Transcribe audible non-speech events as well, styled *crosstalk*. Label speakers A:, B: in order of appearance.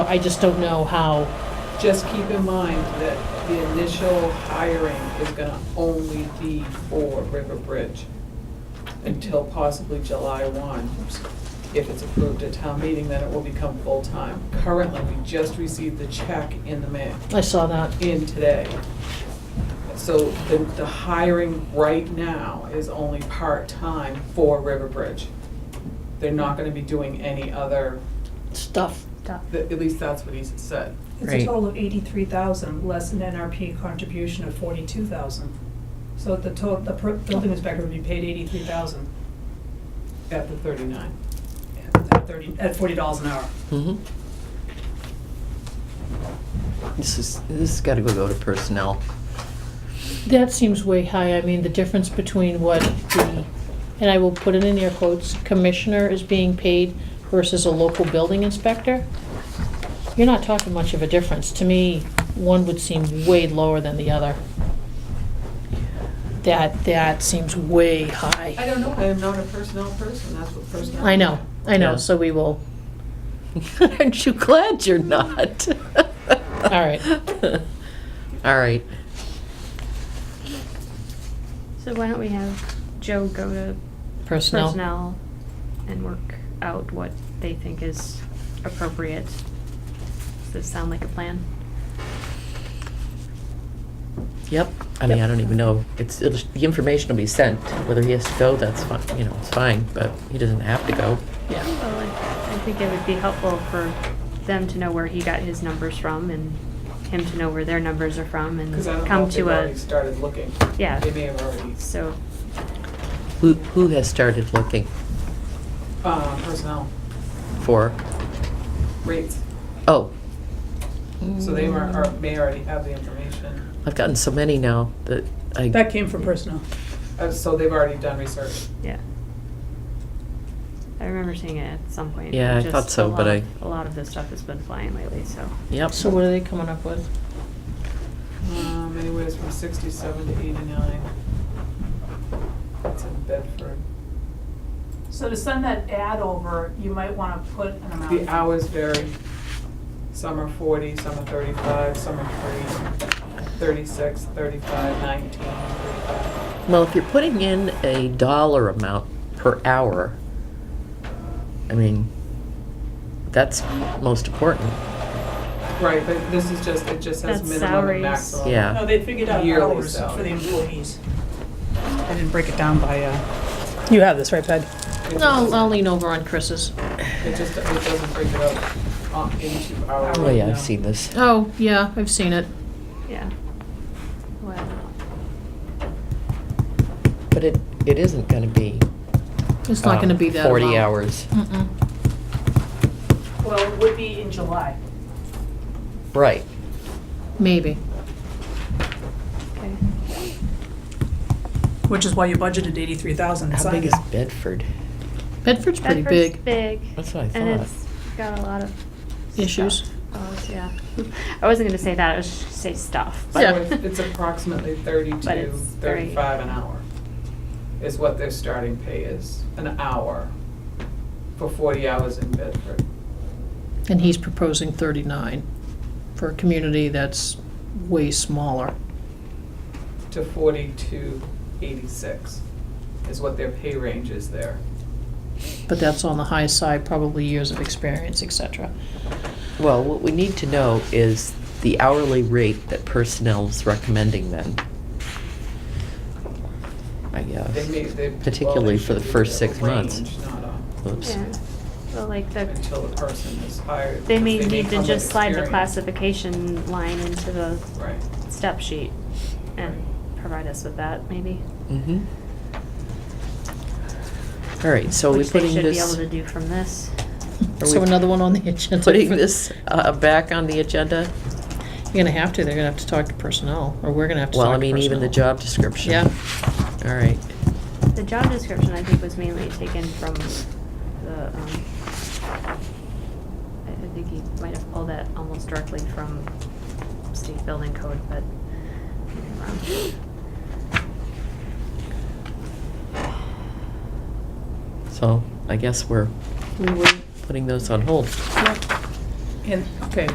A: I just don't know how,
B: Just keep in mind that the initial hiring is gonna only be for River Bridge until possibly July one. If it's approved at town meeting, then it will become full-time. Currently, we just received the check in the mail,
A: I saw that.
B: in today. So the, the hiring right now is only part-time for River Bridge. They're not gonna be doing any other,
A: stuff.
C: Stuff.
B: th- at least that's what he said.
D: It's
E: Right.
D: a total of eighty-three thousand, less an NRP contribution of forty-two thousand. So the total, the per- building inspector would be paid eighty-three thousand
B: At the thirty-nine.
D: at thirty, at forty dollars an hour.
E: Mm-hmm. This is, this has got to go to personnel.
A: That seems way high. I mean, the difference between what the, and I will put it in air quotes, commissioner is being paid versus a local building inspector, you're not talking much of a difference. To me, one would seem way lower than the other. That, that seems way
B: I
A: high.
B: don't know, I am not a personnel person, that's what personnel.
A: I know, I know,
E: Yeah.
A: so we will,
E: *laughs* Aren't you glad you're not? All
A: right.
E: *laughs* All right.
C: So why don't we have Joe go to
A: personnel.
C: personnel and work out what they think is appropriate? Does this sound like a plan?
E: Yep. I mean, I don't even know. It's it'll, the information will be sent. Whether he has to go, that's fine. You know, it's fine. But he doesn't have to go. Yeah.
C: Well, I, I think it would be helpful for them to know where he got his numbers from and him to know where their numbers are from and
B: Because I don't know
C: come
B: if they've
C: to a,
B: already started looking.
C: Yeah.
B: They may have already,
C: so,
E: Who who has started looking
B: uh, personnel
E: for?
B: rates,
E: Oh,
B: so
C: Mm.
B: they were, or may already have the information,
E: I've gotten so many now that I.
D: That came from personnel.
B: Uh, so they've already done research.
C: yeah. I remember seeing it at some point.
E: Yeah, I
C: Just
E: thought so,
C: a
E: but
C: lot-
E: I-
C: A lot of this stuff has been flying lately, so.
E: Yep.
A: So what are they coming up with?
B: Um, anyways, from sixty-seven to eighty-nine. It's in Bedford.
F: So to send that ad over, you might wanna put an amount.
B: The hours vary, some are forty, some are thirty-five, some are three, thirty-six, thirty-five, nineteen, thirty-five.
E: Well, if you're putting in a dollar amount per hour, I mean, that's most important.
A: Oh,
B: Right, but this is just, it just has
C: That's
B: minimum and
C: salaries.
B: maximum.
E: Yeah.
D: No, they figured out
B: Yearly
D: hours for
B: salary.
D: the employees. I didn't break it down by, uh. You have this, right, Peg?
B: It
A: I'll,
B: just-
A: I'll lean over on Chris's.
B: It just, it doesn't break it up uh, into hours.
E: Oh, yeah,
B: no.
E: I've seen this.
A: Oh, yeah, I've seen it.
C: Yeah. Well,
E: But it, it isn't gonna be.
A: It's not
E: um,
A: gonna be that
E: Forty
A: amount.
E: hours.
A: Mm-mm.
F: Well, it would be in July.
E: Right.
A: Maybe.
C: okay.
D: Which is why you budgeted eighty-three thousand.
E: How big is Bedford?
A: Bedford's pretty
C: Bedford's
A: big.
C: Big.
E: That's what I
C: And
E: thought.
C: it's got a lot of
A: Issues.
C: stuff. Oh, yeah. *laughs* I wasn't gonna say that, I was just gonna say stuff. but-
A: Yeah.
B: So Oh, it's- it's approximately
C: But
B: thirty-two,
C: it's very-
B: thirty-five an hour is what their starting pay is, an hour for forty hours in Bedford.
A: And he's proposing 39 for a community that's way smaller.
B: to forty-two eighty-six is what their pay range is there.
A: But that's on the high side, probably years of experience, et cetera.
E: Well, what we need to know is the hourly rate that personnel's recommending then. I
B: They
E: guess.
B: may, they. well, they
E: Particularly for the
B: should
E: first
B: give
E: six
B: a
E: months.
B: range, not a-
E: Oops.
C: Yeah. Well, like the,
B: Until the person is hired.
C: they
B: because
C: may need
B: come
C: to
B: with
C: just slide the
B: experience.
C: classification line into the
B: Right.
C: step sheet and provide us with that, maybe.
E: Mhm. All right, so are we
C: Which they
E: putting
C: should be
E: this,
C: able to do from this.
E: Are
A: So
E: we
A: another one on the agenda.
E: *laughs* putting this uh, back on the agenda?
A: You're gonna have to, they're gonna have to talk to personnel, or we're gonna have to talk
E: Well,
A: to
E: I
A: personnel.
E: mean, even the job description.
A: Yeah.
E: All right.
C: The job description, I think, was mainly taken from the, um, I I think he might have pulled that almost directly from state building code, but um, I may be wrong.
E: So I guess we're
A: We would,
E: putting those on hold.
A: yeah.
G: And
D: Okay.